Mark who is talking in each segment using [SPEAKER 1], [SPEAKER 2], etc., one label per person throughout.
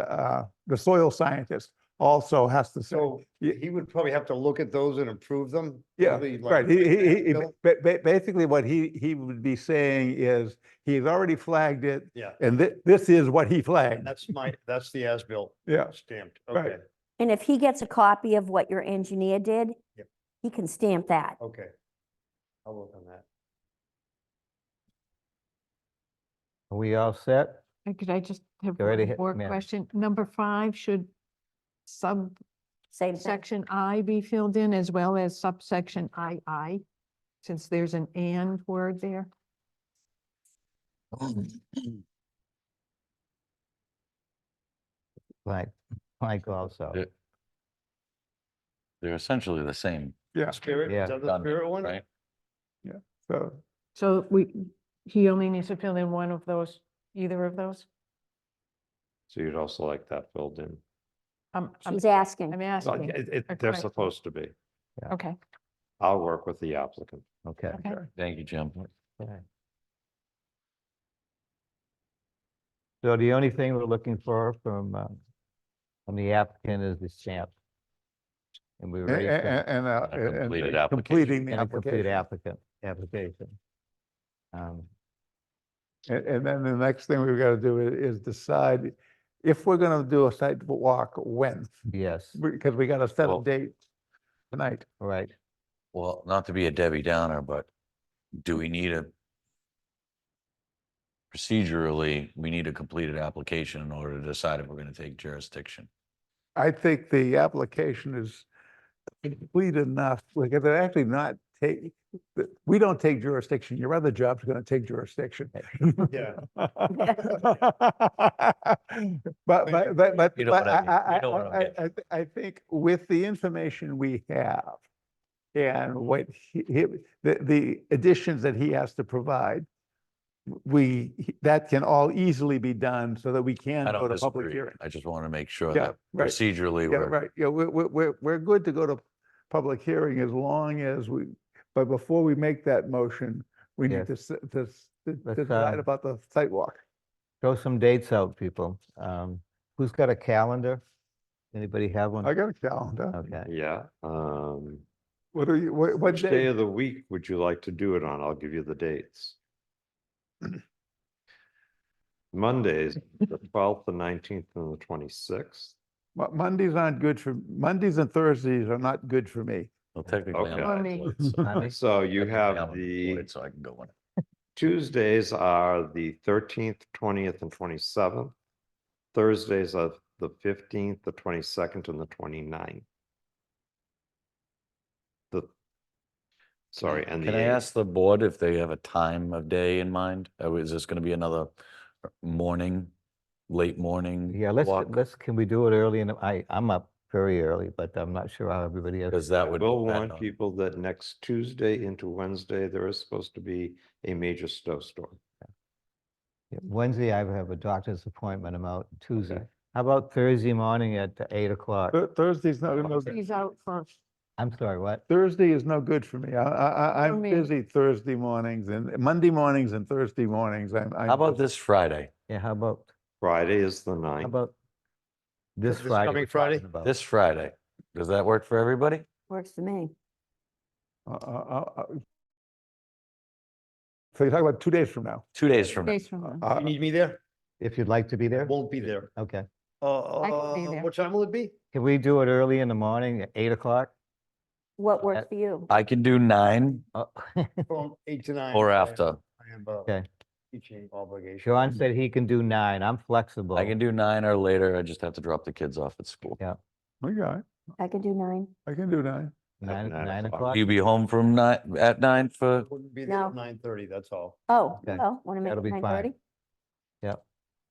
[SPEAKER 1] uh, the soil scientist also has to say.
[SPEAKER 2] So
[SPEAKER 1] Ye-
[SPEAKER 2] he would probably have to look at those and approve them?
[SPEAKER 1] Yeah,
[SPEAKER 2] probably like
[SPEAKER 1] right. He, he, he- he,
[SPEAKER 2] Bill?
[SPEAKER 1] ba- ba- basically what he, he would be saying is, he's already flagged it
[SPEAKER 2] Yeah,
[SPEAKER 1] and thi- this is what he flagged.
[SPEAKER 2] that's my, that's the as-built
[SPEAKER 1] Yeah,
[SPEAKER 2] stamped,
[SPEAKER 1] Right.
[SPEAKER 2] okay,
[SPEAKER 3] And if he gets a copy of what your engineer did,
[SPEAKER 2] Yep.
[SPEAKER 3] he can stamp that.
[SPEAKER 2] okay. I'll work on that.
[SPEAKER 4] Are we all set?
[SPEAKER 5] And Could I just have
[SPEAKER 4] Go right
[SPEAKER 5] one
[SPEAKER 4] ahead,
[SPEAKER 5] more
[SPEAKER 4] ma'am.
[SPEAKER 5] question? Number five, should subsection
[SPEAKER 3] Same thing.
[SPEAKER 5] I be filled in as well as subsection II? Since there's an and word there?
[SPEAKER 4] Mike, Mike also.
[SPEAKER 6] Yeah. They're essentially the same,
[SPEAKER 1] yeah.
[SPEAKER 2] Spirit,
[SPEAKER 4] Yeah.
[SPEAKER 2] is that the
[SPEAKER 6] Done,
[SPEAKER 2] spirit one?
[SPEAKER 6] right?
[SPEAKER 1] So,
[SPEAKER 5] So we, he only needs to fill in one of those, either of those?
[SPEAKER 7] So you'd also like that filled in.
[SPEAKER 5] I'm, I'm,
[SPEAKER 3] She's asking.
[SPEAKER 5] I'm
[SPEAKER 7] Well,
[SPEAKER 5] asking.
[SPEAKER 7] it- it-
[SPEAKER 5] a
[SPEAKER 7] They're
[SPEAKER 5] correct-
[SPEAKER 7] supposed to be.
[SPEAKER 5] Okay,
[SPEAKER 7] I'll work with the applicant.
[SPEAKER 4] Okay.
[SPEAKER 5] okay.
[SPEAKER 6] thank you, Jim.
[SPEAKER 4] So the only thing we're looking for from, um, from the applicant is the stamp. And we
[SPEAKER 1] a- a-
[SPEAKER 4] already
[SPEAKER 1] a-
[SPEAKER 4] sent
[SPEAKER 1] and, uh,
[SPEAKER 6] A
[SPEAKER 1] and,
[SPEAKER 6] completed
[SPEAKER 1] and
[SPEAKER 6] application.
[SPEAKER 1] completing the
[SPEAKER 4] and a complete
[SPEAKER 1] application.
[SPEAKER 4] applicant, application. Um,
[SPEAKER 1] And, and then the next thing we've got to do i- is decide if we're going to do a site walk, when?
[SPEAKER 4] Yes,
[SPEAKER 1] Because we got to set a
[SPEAKER 6] Well-
[SPEAKER 1] date tonight.
[SPEAKER 4] right.
[SPEAKER 6] Well, not to be a Debbie Downer, but do we need a procedurally, we need a completed application in order to decide if we're going to take jurisdiction.
[SPEAKER 1] I think the application is complete enough, because they're actually not take, th- we don't take jurisdiction, your other job's gonna take jurisdiction.
[SPEAKER 2] Yeah.
[SPEAKER 1] But, but, but, but
[SPEAKER 6] You know what
[SPEAKER 1] but
[SPEAKER 6] I mean.
[SPEAKER 1] I, I,
[SPEAKER 6] You know what I'm
[SPEAKER 1] I, I, I- I think with the information we have and what he, he- the, the additions that he has to provide, we, that can all easily be done so that we can
[SPEAKER 6] I
[SPEAKER 1] go
[SPEAKER 6] don't
[SPEAKER 1] to public
[SPEAKER 6] disagree.
[SPEAKER 1] hearing.
[SPEAKER 6] I just want to make sure
[SPEAKER 1] Yeah,
[SPEAKER 6] that
[SPEAKER 1] right.
[SPEAKER 6] procedurally,
[SPEAKER 1] Yeah,
[SPEAKER 6] we're,
[SPEAKER 1] right, yeah, we're, we're, we're, we're good to go to public hearing as long as we, but before we make that motion, we need
[SPEAKER 4] Yes.
[SPEAKER 1] to, s- to, s- to
[SPEAKER 4] Let's,
[SPEAKER 1] decide
[SPEAKER 4] um,
[SPEAKER 1] about the sidewalk.
[SPEAKER 4] Throw some dates out, people. Um, who's got a calendar? Anybody have
[SPEAKER 1] I
[SPEAKER 4] one?
[SPEAKER 1] got a calendar.
[SPEAKER 4] Okay,
[SPEAKER 7] Yeah. um,
[SPEAKER 1] What are you, what, what
[SPEAKER 7] Which day
[SPEAKER 1] day?
[SPEAKER 7] of the week would you like to do it on? I'll give you the dates. Mondays, the twelfth, the nineteenth, and the twenty-sixth.
[SPEAKER 1] Mo- Mondays aren't good for, Mondays and Thursdays are not good for me.
[SPEAKER 6] well, technically. I'm
[SPEAKER 7] Okay.
[SPEAKER 6] not
[SPEAKER 5] Only-
[SPEAKER 6] employed, so-
[SPEAKER 4] Monday?
[SPEAKER 7] So you
[SPEAKER 6] technically I'm
[SPEAKER 7] have the
[SPEAKER 6] employed, So I can go in.
[SPEAKER 7] Tuesdays are the thirteenth, twentieth, and twenty-seventh. Thursdays are the fifteenth, the twenty-second, and the 29th. The, sorry, and the
[SPEAKER 6] Can I
[SPEAKER 7] 8th.
[SPEAKER 6] ask the board if they have a time of day in mind? Or is this going to be another morning, late morning?
[SPEAKER 4] yeah, let's,
[SPEAKER 6] walk?
[SPEAKER 4] let's, can we do it early? And I, I'm up very early, but I'm not sure how everybody else.
[SPEAKER 6] Because that would.
[SPEAKER 7] We'll
[SPEAKER 6] depend
[SPEAKER 7] warn
[SPEAKER 6] on-
[SPEAKER 7] people that next Tuesday into Wednesday, there is supposed to be a major snowstorm.
[SPEAKER 4] Yeah, Wednesday, I have a doctor's appointment. I'm out Tuesday. How about Thursday morning at eight o'clock?
[SPEAKER 1] Thur- Thursday's not, no,
[SPEAKER 5] He's out first.
[SPEAKER 4] I'm sorry, what?
[SPEAKER 1] Thursday is no good for me. I, I, I-
[SPEAKER 5] For
[SPEAKER 1] I'm
[SPEAKER 5] me.
[SPEAKER 1] busy Thursday mornings and Monday mornings and Thursday mornings. I'm, I'm.
[SPEAKER 6] How about this Friday?
[SPEAKER 4] Yeah, how about,
[SPEAKER 7] Friday is the ninth.
[SPEAKER 4] how about this
[SPEAKER 2] this
[SPEAKER 4] Friday?
[SPEAKER 2] coming
[SPEAKER 4] we're talking
[SPEAKER 2] Friday?
[SPEAKER 4] about?
[SPEAKER 6] This Friday? Does that work for everybody?
[SPEAKER 3] Works for me.
[SPEAKER 1] uh, uh, uh, uh, So you're talking about two days from now.
[SPEAKER 6] Two days from now.
[SPEAKER 5] Days from now.
[SPEAKER 1] Uh,
[SPEAKER 2] You need me there?
[SPEAKER 4] If you'd like to be there?
[SPEAKER 2] Won't be there.
[SPEAKER 4] Okay.
[SPEAKER 2] Uh,
[SPEAKER 5] can be there.
[SPEAKER 2] what time will it be?
[SPEAKER 4] Can we do it early in the morning at eight o'clock?
[SPEAKER 3] What works
[SPEAKER 4] That-
[SPEAKER 3] for you?
[SPEAKER 6] I can do nine
[SPEAKER 4] Oh,
[SPEAKER 2] From eight to nine.
[SPEAKER 6] or
[SPEAKER 2] I am-
[SPEAKER 6] after.
[SPEAKER 2] I am, uh,
[SPEAKER 4] Okay.
[SPEAKER 2] teaching obligation.
[SPEAKER 4] Sean said he can do nine. I'm flexible.
[SPEAKER 6] I can do nine or later. I just have to drop the kids off at school.
[SPEAKER 4] Yeah.
[SPEAKER 1] Okay,
[SPEAKER 3] I can do nine.
[SPEAKER 1] I can do nine.
[SPEAKER 4] Nine,
[SPEAKER 7] nine
[SPEAKER 4] nine
[SPEAKER 7] o'clock.
[SPEAKER 4] o'clock?
[SPEAKER 6] You be home from nine, at nine for,
[SPEAKER 2] Wouldn't be there
[SPEAKER 3] No.
[SPEAKER 2] at nine thirty, that's all.
[SPEAKER 3] Oh,
[SPEAKER 4] Okay.
[SPEAKER 3] oh, want to make
[SPEAKER 4] That'll
[SPEAKER 3] it
[SPEAKER 4] be
[SPEAKER 3] nine
[SPEAKER 4] fine.
[SPEAKER 3] thirty?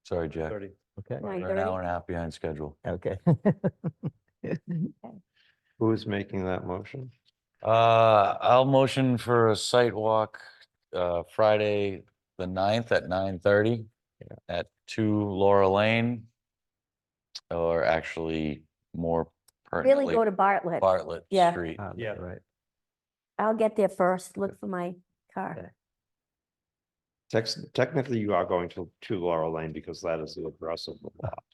[SPEAKER 6] sorry, Jack.
[SPEAKER 2] Thirty.
[SPEAKER 4] Okay,
[SPEAKER 3] Nine
[SPEAKER 6] We're an hour
[SPEAKER 3] thirty?
[SPEAKER 6] and a half behind schedule.
[SPEAKER 4] okay.
[SPEAKER 7] Who is making that motion?
[SPEAKER 6] Uh, I'll motion for a site walk, uh, Friday, the ninth at nine thirty at two Laura Lane. Or actually more
[SPEAKER 3] Really go to
[SPEAKER 6] pertinently
[SPEAKER 3] Bartlett.
[SPEAKER 6] Bartlett
[SPEAKER 3] Yeah.
[SPEAKER 6] Street.
[SPEAKER 4] Ah,
[SPEAKER 2] Yeah.
[SPEAKER 4] Right.
[SPEAKER 3] I'll get there first. Look for my
[SPEAKER 4] Okay.
[SPEAKER 3] car.
[SPEAKER 7] Tex- Technically, you are going to, to Laurel Lane because that is the address of the lot.